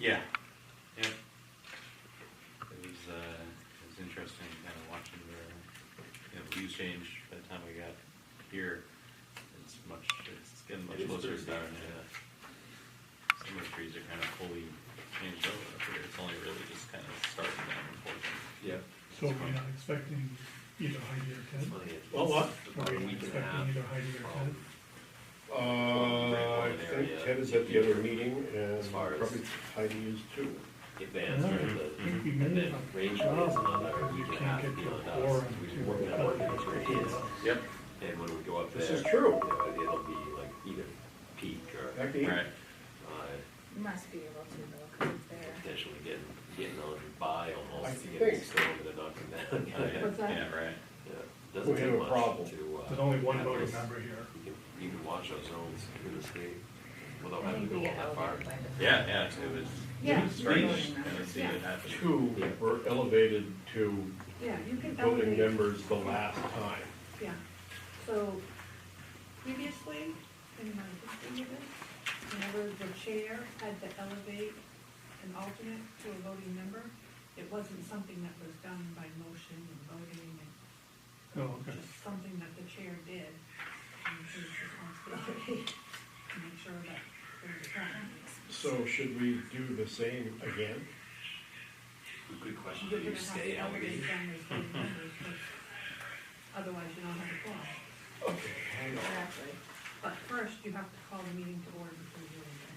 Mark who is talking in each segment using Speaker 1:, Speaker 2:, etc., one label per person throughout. Speaker 1: Yeah, yeah. It was, uh, it was interesting kind of watching the, you know, views change by the time we got here. It's much, it's getting much
Speaker 2: It is
Speaker 1: closer to
Speaker 2: Thursday.
Speaker 1: down, yeah. Some of the trees are kind of fully changed over up here. It's only really just kind of starting down unfortunately.
Speaker 2: Yeah.
Speaker 3: So we're not expecting either Heidi or Ted?
Speaker 2: Well, what?
Speaker 3: Are we expecting either Heidi or Ted?
Speaker 4: Uh, I think Ted is at the other meeting
Speaker 2: As
Speaker 4: and
Speaker 2: far as-
Speaker 4: probably Heidi is too.
Speaker 2: Advance or
Speaker 3: I think we
Speaker 2: the,
Speaker 3: made
Speaker 2: the
Speaker 3: it.
Speaker 2: range is another
Speaker 3: You
Speaker 2: week and a half
Speaker 3: can't get
Speaker 2: beyond
Speaker 3: to a
Speaker 2: us.
Speaker 3: quorum
Speaker 2: We
Speaker 3: to-
Speaker 2: work on what the range is,
Speaker 1: Yep.
Speaker 2: and when we go up there.
Speaker 4: This is true.
Speaker 2: you know, It'll be like either peak or,
Speaker 4: Becky?
Speaker 1: Right.
Speaker 2: uh,
Speaker 5: Must be able to though, 'cause it's there.
Speaker 2: potentially getting, getting on by
Speaker 4: I
Speaker 2: almost, to get
Speaker 4: think-
Speaker 2: it started and knocking down.
Speaker 1: Yeah,
Speaker 5: What's that?
Speaker 1: Yeah, right.
Speaker 2: Yeah, Doesn't
Speaker 4: We have
Speaker 2: take
Speaker 4: a
Speaker 2: much
Speaker 4: problem.
Speaker 2: to, uh.
Speaker 3: There's only one
Speaker 2: have
Speaker 3: voting
Speaker 2: us-
Speaker 3: member here.
Speaker 2: You can, you can watch our zones through the state without
Speaker 5: I
Speaker 2: having
Speaker 5: think
Speaker 2: to go
Speaker 5: we get
Speaker 2: that far.
Speaker 5: elevated by the.
Speaker 1: Yeah, yeah, it was, it
Speaker 5: Yeah,
Speaker 1: was strange,
Speaker 5: voting
Speaker 1: kind of
Speaker 5: members,
Speaker 1: seeing it
Speaker 5: yeah.
Speaker 1: happen.
Speaker 4: Two were elevated to
Speaker 5: Yeah, you could
Speaker 4: voting
Speaker 5: elevate,
Speaker 4: members the last time.
Speaker 5: yeah. So previously, in my history of it, whenever the chair had to elevate an alternate to a voting member, it wasn't something that was done by motion and voting and
Speaker 3: Oh, okay.
Speaker 5: just something that the chair did. And his responsibility to make sure that there was a
Speaker 4: So should we do the same again?
Speaker 2: Good question, do
Speaker 5: You're gonna
Speaker 2: you
Speaker 5: have
Speaker 2: stay
Speaker 5: to elevate
Speaker 2: elevated?
Speaker 5: them as voting members, because otherwise you don't have a quorum.
Speaker 4: Okay, hang on.
Speaker 5: Exactly. But first, you have to call the meeting to order before you do anything.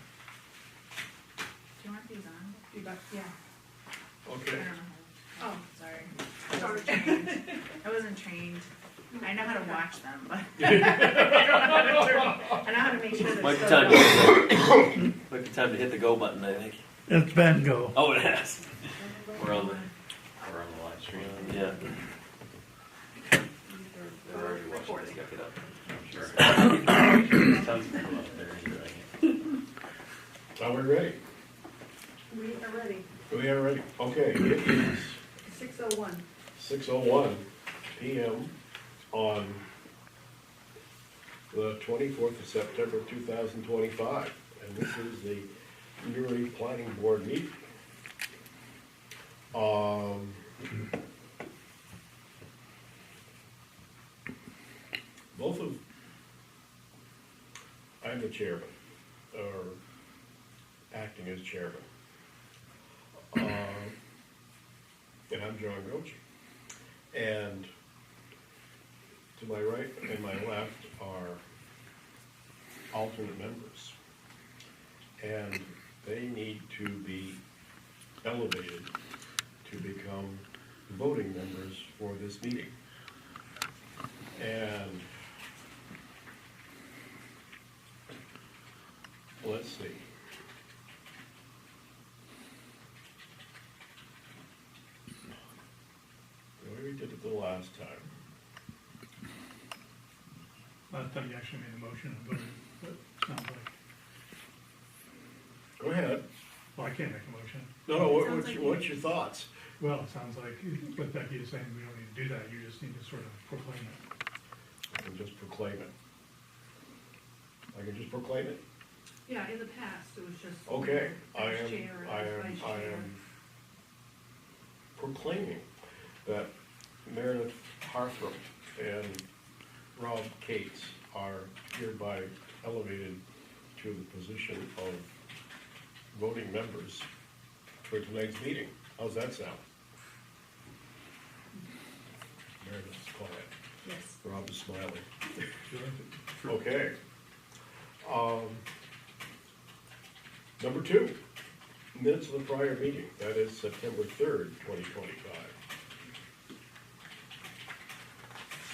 Speaker 6: Do you want these on?
Speaker 5: You got, yeah.
Speaker 6: I
Speaker 4: Okay,
Speaker 6: don't know.
Speaker 5: Oh,
Speaker 6: Sorry. I
Speaker 5: Sorry.
Speaker 6: wasn't trained. I wasn't trained. I know how to watch them, but. I don't know how to turn- I know how to make sure
Speaker 2: Might be
Speaker 6: they're
Speaker 2: time
Speaker 6: still. going.
Speaker 2: to, might be time to hit the go button, I think.
Speaker 3: It's Ben Go.
Speaker 2: Oh, it has. We're on
Speaker 1: Or on the live stream.
Speaker 2: the, yeah. They're already watching this
Speaker 6: Recording.
Speaker 2: guy get up.
Speaker 1: I'm sure. Tons of people up there enjoying it.
Speaker 4: now we're ready.
Speaker 5: We are ready.
Speaker 4: We are ready. Okay, it is
Speaker 5: Six oh one.
Speaker 4: six oh one PM on the twenty-fourth of September, two thousand twenty-five. And this is the Newry Planning Board meeting. Um, both of, I'm the chairman, or acting as chairman. Um, and I'm John Goche. And to my right and my left are alternate members. And they need to be elevated to become voting members for this meeting. And let's see. The way we did it the last time.
Speaker 3: Last time you actually made a motion, but it sounds like,
Speaker 4: Go ahead.
Speaker 3: well, I can't make a motion.
Speaker 4: No, no, what,
Speaker 6: Sounds
Speaker 4: what's,
Speaker 6: like you-
Speaker 4: what's your thoughts?
Speaker 3: Well, it sounds like what Becky is saying, we don't need to do that, you just need to sort of proclaim it.
Speaker 4: I can just proclaim it. I can just proclaim it?
Speaker 5: Yeah, in the past, it was just.
Speaker 4: Okay, I
Speaker 5: vice
Speaker 4: am,
Speaker 5: chair and
Speaker 4: I am,
Speaker 5: vice
Speaker 4: I
Speaker 5: chair.
Speaker 4: am proclaiming that Meredith Harthrop and Rob Cates are hereby elevated to the position of voting members for tonight's meeting. How's that sound? Meredith's quiet,
Speaker 5: Yes.
Speaker 4: Rob is smiling.
Speaker 3: Sure.
Speaker 4: Okay. Um, Number two, minutes of the prior meeting, that is September third, twenty twenty-five.